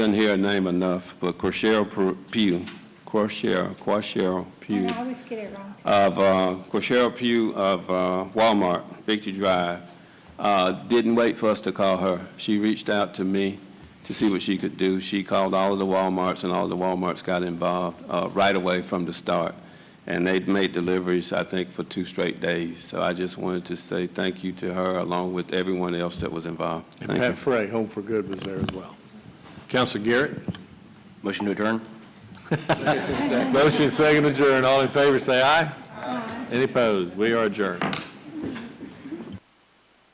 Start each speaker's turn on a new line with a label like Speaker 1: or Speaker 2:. Speaker 1: Didn't hear her name enough, but Corshell Pugh, Corshell, Corshell Pugh,
Speaker 2: I always get it wrong.
Speaker 1: of, uh, Corshell Pugh of uh, Walmart, Victory Drive, uh, didn't wait for us to call her. She reached out to me to see what she could do. She called all of the Walmarts, and all of the Walmarts got involved uh, right away from the start. And they'd made deliveries, I think, for two straight days. So I just wanted to say thank you to her, along with everyone else that was involved.
Speaker 3: And
Speaker 1: Thank you.
Speaker 3: Pat Frey, Home for Good, was there as well. Counsel Garrett?
Speaker 4: Motion to adjourn?
Speaker 3: Motion second adjourn. All in favor, say aye. Any opposed? We are adjourned.